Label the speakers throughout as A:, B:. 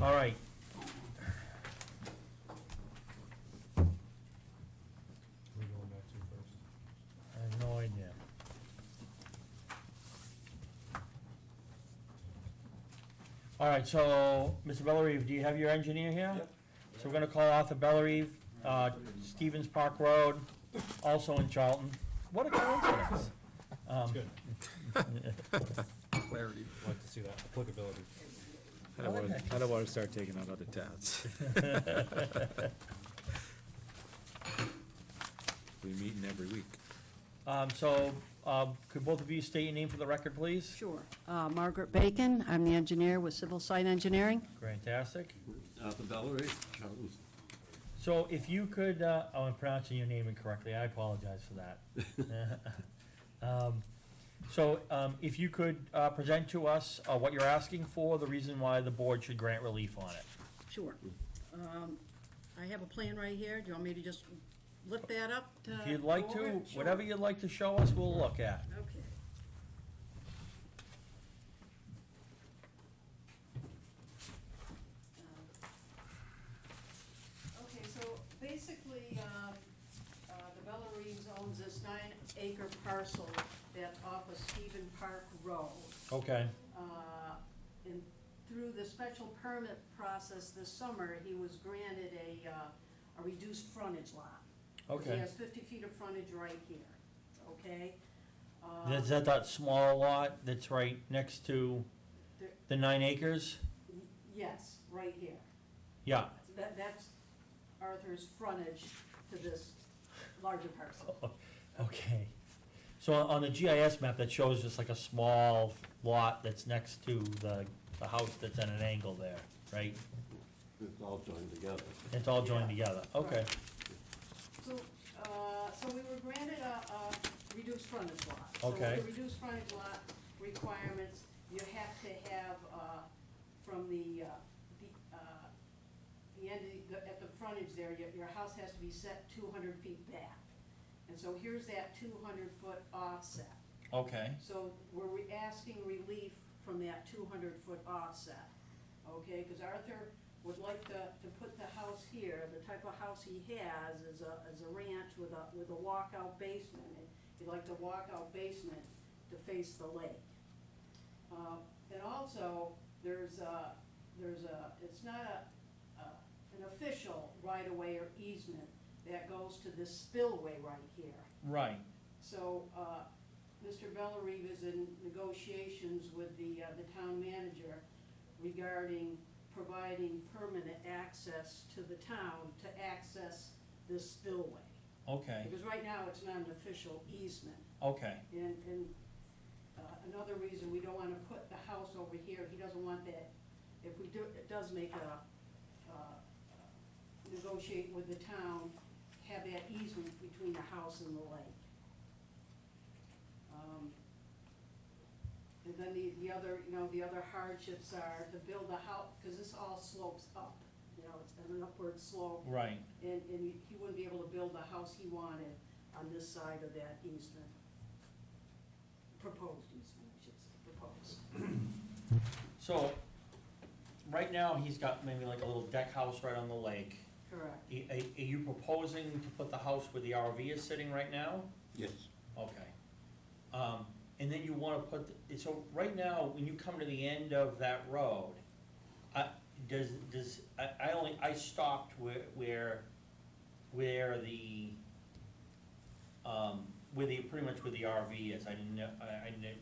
A: All right.
B: We're going back to first.
A: I have no idea. All right, so, Mr. Bellerive, do you have your engineer here?
C: Yep.
A: So we're gonna call Arthur Bellerive, uh, Stevens Park Road, also in Charlton. What a coincidence. Um,
B: Good.
C: Clarity.
B: Like to see that applicability.
D: I
A: I
D: don't
A: like
D: want,
A: that.
D: I don't want to start taking on other towns. We meet in every week.
A: Um, so, um, could both of you state your name for the record, please?
E: Sure. Uh, Margaret Bacon, I'm the engineer with Civil Site Engineering.
A: Fantastic.
C: Arthur Bellerive, Charlton.
A: So if you could, uh, oh, I'm pronouncing your name incorrectly, I apologize for that. Um, So, um, if you could, uh, present to us, uh, what you're asking for, the reason why the board should grant relief on it.
E: Sure. Um, I have a plan right here. Do you want me to just lift that up? to
A: If you'd like
E: go over
A: to,
E: it? Sure.
A: whatever you'd like to show us, we'll look at.
E: Okay. Uh, Okay, so basically, um, uh, the Bella Reeves owns this nine acre parcel that off of Stephen Park Road
A: Okay,
E: uh, in, through the special permit process this summer, he was granted a, uh, a reduced frontage lot. 'Cause He
A: Okay.
E: has fifty feet of frontage right here, okay? Uh,
A: is that that small lot that's right next to
E: There-
A: the nine acres?
E: Yes, right here.
A: Yeah,
E: So That, that's Arthur's frontage to this larger parcel.
A: okay. So on on the GIS map, that shows just like a small lot that's next to the, the house that's at an angle there, right?
C: It's all joined together.
A: It's all joined together, okay.
E: So, uh, so we were granted a, a reduced frontage lot. So with
A: Okay.
E: the reduced frontage lot requirements, you have to have, uh, from the, uh, the, uh, the end, of the- at the frontage there, your, your house has to be set two hundred feet back. And so here's that two hundred foot offset.
A: Okay.
E: So we're re- asking relief from that two hundred foot offset, okay? Because Arthur would like to, to put the house here, the type of house he has is a, is a ranch with a, with a walkout basement. and He'd like the walkout basement to face the lake. Uh, And also, there's a, there's a, it's not a, a- an official right-of-way or easement that goes to this spillway right here.
A: Right,
E: So, uh, Mr. Bellerive is in negotiations with the, uh, the town manager regarding providing permanent access to the town to access this spillway.
A: okay,
E: Because right now, it's not an official easement.
A: okay,
E: And, and uh, another reason, we don't wanna put the house over here, he doesn't want that, if we do, it does make a, uh, negotiate with the town, have that easement between the house and the lake. Um, And then the, the other, you know, the other hardships are to build a house, cause this all slopes up, you know, it's an upward slope
A: right,
E: and, and he wouldn't be able to build the house he wanted on this side of that easement. Proposed easement, I should say, proposed.
A: so, right now, he's got maybe like a little deck house right on the lake.
E: Correct.
A: Are, are you proposing to put the house where the RV is sitting right now?
C: Yes.
A: Okay. Um, and then you wanna put, the- so right now, when you come to the end of that road, I, does, does, I, I only, I stopped where, where, where the, um, where the, pretty much where the RV is, I didn't know, I, I didn't,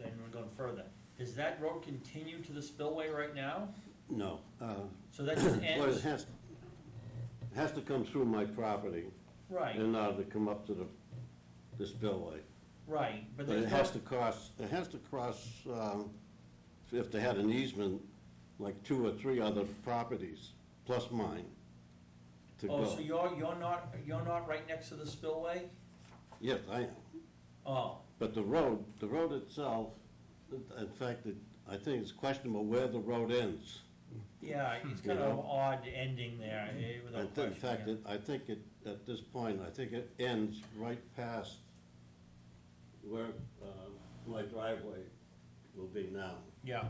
A: I didn't go further. Does that road continue to the spillway right now?
F: No. uh,
A: So that just
F: Well, it
A: ends,
F: has, it has to come through my property
A: right,
F: in order to come up to the, the spillway.
A: right, but
F: But it
A: there's
F: has
A: no,
F: to cross, it has to cross, um, if they had an easement, like two or three other properties, plus mine, to
A: oh, so
F: go.
A: you're, you're not, you're not right next to the spillway?
F: Yes, I am.
A: Oh,
F: But the road, the road itself, in fact, it- I think it's questionable where the road ends.
A: Yeah, it's kind of an odd ending there, eh,
F: I
A: without
F: think-
A: question.
F: In fact,
A: yeah.
F: it- I think it, at this point, I think it ends right past where um, my driveway will be now.
A: Yeah,